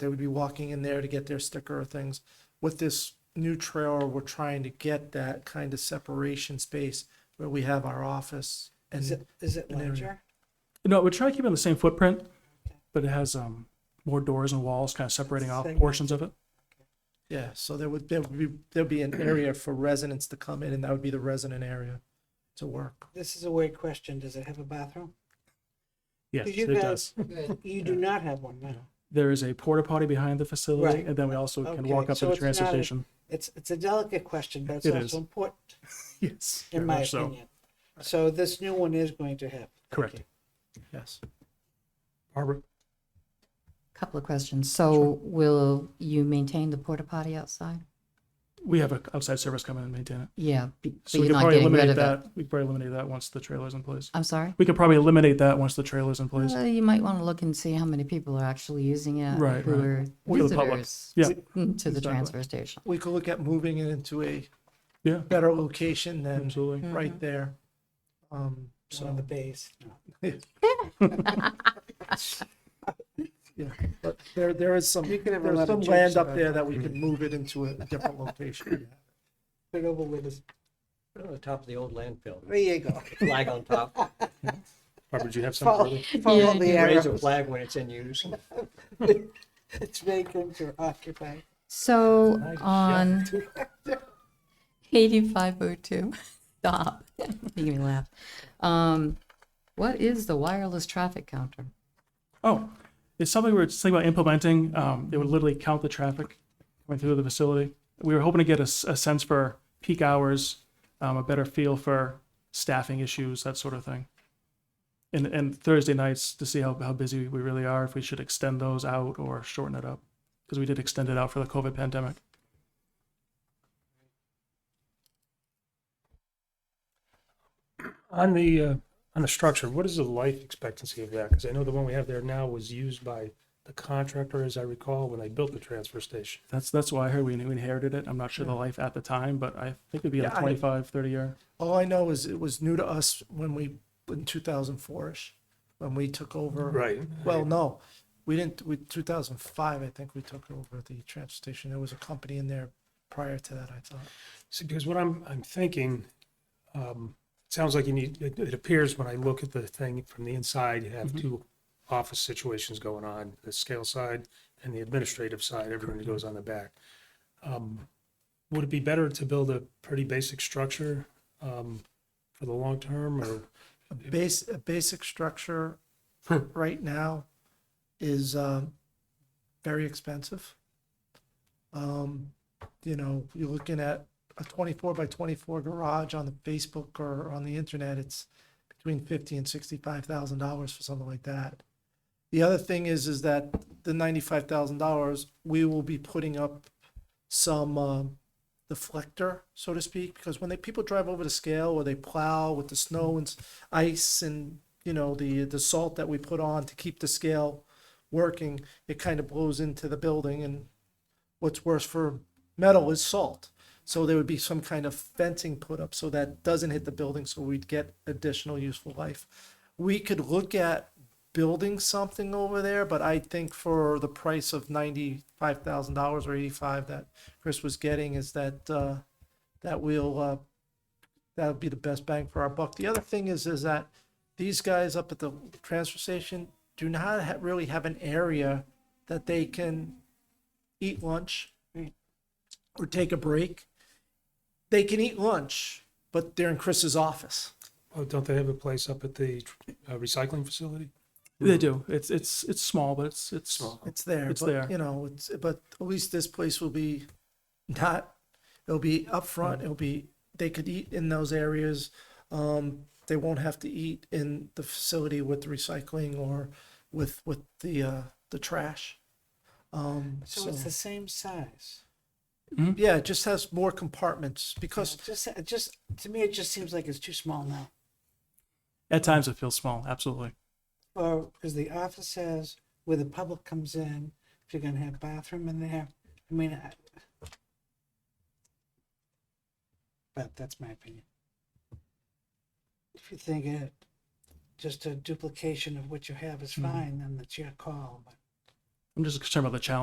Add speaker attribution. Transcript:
Speaker 1: They would be walking in there to get their sticker or things. With this new trailer, we're trying to get that kind of separation space where we have our office
Speaker 2: Is
Speaker 1: and
Speaker 2: it, is it
Speaker 1: an area.
Speaker 2: larger?
Speaker 3: No, we're trying to keep it on the same footprint, but it has um, more doors and walls kind of separating off
Speaker 2: Segment.
Speaker 3: portions of it.
Speaker 1: yeah, so there would there would be there'd be an area for residents to come in and that would be the resident area to work.
Speaker 2: This is a weird question. Does it have a bathroom?
Speaker 3: Yes,
Speaker 2: you
Speaker 3: it
Speaker 2: guys-
Speaker 3: does.
Speaker 2: You do not have one now.
Speaker 3: There is a porta potty behind the facility,
Speaker 2: Right.
Speaker 3: and then we also can walk
Speaker 2: Okay,
Speaker 3: up to
Speaker 2: so
Speaker 3: the
Speaker 2: it's
Speaker 3: transfer
Speaker 2: not a-
Speaker 3: station.
Speaker 2: It's, it's a delicate question, but it's
Speaker 3: It is.
Speaker 2: also important,
Speaker 3: Yes, very
Speaker 2: in my
Speaker 3: much so.
Speaker 2: opinion. So this new one is going to have. Thank
Speaker 3: Correct.
Speaker 2: you.
Speaker 1: Yes.
Speaker 3: Barbara,
Speaker 4: Couple of questions. So will you maintain the porta potty outside?
Speaker 3: we have an outside service come in and maintain it.
Speaker 4: Yeah, b- but
Speaker 3: So we
Speaker 4: you're
Speaker 3: could
Speaker 4: not
Speaker 3: probably
Speaker 4: getting rid
Speaker 3: eliminate
Speaker 4: of it.
Speaker 3: that. We could probably eliminate that once the trailer's in place.
Speaker 4: I'm sorry?
Speaker 3: We could probably eliminate that once the trailer's in place.
Speaker 4: Well, you might want to look and see how many people are actually using it,
Speaker 3: Right,
Speaker 4: who
Speaker 3: right.
Speaker 4: are
Speaker 3: For the public.
Speaker 4: visitors
Speaker 3: Yeah.
Speaker 4: to
Speaker 3: Exactly.
Speaker 4: the transfer station.
Speaker 1: We could look at moving it into a
Speaker 3: Yeah,
Speaker 1: better location than
Speaker 3: absolutely.
Speaker 2: Mm-hmm.
Speaker 1: right there. Um,
Speaker 2: It's on the
Speaker 1: so,
Speaker 2: base.
Speaker 1: yeah, but there, there is some,
Speaker 2: You can have a
Speaker 1: there's
Speaker 2: lot of
Speaker 1: some
Speaker 2: jokes
Speaker 1: land up
Speaker 2: about
Speaker 1: there
Speaker 2: it.
Speaker 1: that we could move it into a different location.
Speaker 2: Put it over with this.
Speaker 5: Put it on the top of the old landfill,
Speaker 2: There you go.
Speaker 5: flag on top,
Speaker 3: Barbara, do you have
Speaker 2: Follow,
Speaker 3: something?
Speaker 2: follow the
Speaker 5: raise a
Speaker 2: arrow.
Speaker 5: flag when it's in use.
Speaker 2: It's vacant or occupied.
Speaker 4: So on eighty-five oh two, stop, making me laugh. Um, what is the wireless traffic counter?
Speaker 3: Oh, it's something we were thinking about implementing. Um, it would literally count the traffic coming through the facility. We were hoping to get a, s- a sense for peak hours, um, a better feel for staffing issues, that sort of thing. And, and Thursday nights to see how, how busy we really are, if we should extend those out or shorten it up. Because we did extend it out for the COVID pandemic.
Speaker 6: On the, uh, on the structure, what is the life expectancy of that? Because I know the one we have there now was used by the contractor, as I recall, when they built the transfer station.
Speaker 3: That's, that's why I heard we inherited it. I'm not sure the life at the time, but I think it'd be
Speaker 1: Yeah,
Speaker 3: like
Speaker 1: I-
Speaker 3: 25, 30 year.
Speaker 1: All I know is it was new to us when we, in two thousand four-ish, when we took over.
Speaker 6: Right.
Speaker 1: Well, no, we didn't, we, two thousand five, I think we took over the transfer station. There was a company in there prior to that, I thought.
Speaker 6: See, because what I'm, I'm thinking, um, it sounds like you need, it, it appears when I look at the thing from the inside, you have two office situations going on, the scale side and the administrative side, everything that goes on the back. Um, Would it be better to build a pretty basic structure, um, for the long term or?
Speaker 1: A base, a basic structure right now is, um, very expensive. Um, you know, you're looking at a twenty-four by twenty-four garage on the Facebook or on the internet, it's between fifty and sixty-five thousand dollars for something like that. The other thing is, is that the ninety-five thousand dollars, we will be putting up some, um, deflector, so to speak, because when they people drive over the scale or they plow with the snow and s- ice and you know the the salt that we put on to keep the scale working, it kind of blows into the building. And what's worse for metal is salt. So there would be some kind of fencing put up so that doesn't hit the building, so we'd get additional useful life. We could look at building something over there, but I think for the price of ninety-five thousand dollars or eighty-five that Chris was getting is that uh, that will uh, that would be the best bang for our buck. The other thing is is that these guys up at the transfer station do not ha- really have an area that they can eat lunch
Speaker 2: Right.
Speaker 1: or take a break. They can eat lunch, but they're in Chris's office.
Speaker 6: Oh, don't they have a place up at the uh, recycling facility?
Speaker 3: They do. It's, it's, it's small, but it's, it's
Speaker 6: Small.
Speaker 1: It's there.
Speaker 3: It's
Speaker 1: but,
Speaker 3: there.
Speaker 1: You know, it's but at least this place will be not it'll be up front, it'll be they could eat in those areas. Um, they won't have to eat in the facility with recycling or with with the uh the trash. Um
Speaker 2: So
Speaker 1: so,
Speaker 2: it's the same size.
Speaker 3: Mm-hmm.
Speaker 1: yeah, it just has more compartments because
Speaker 2: Just, it just, to me, it just seems like it's too small now.
Speaker 3: At times it feels small, absolutely.
Speaker 2: Or, because the office says where the public comes in, if you're gonna have bathroom in there, I mean, I. But that's my opinion. If you think it, just a duplication of what you have is fine, then that's your call, but.
Speaker 3: I'm just concerned about the challenge.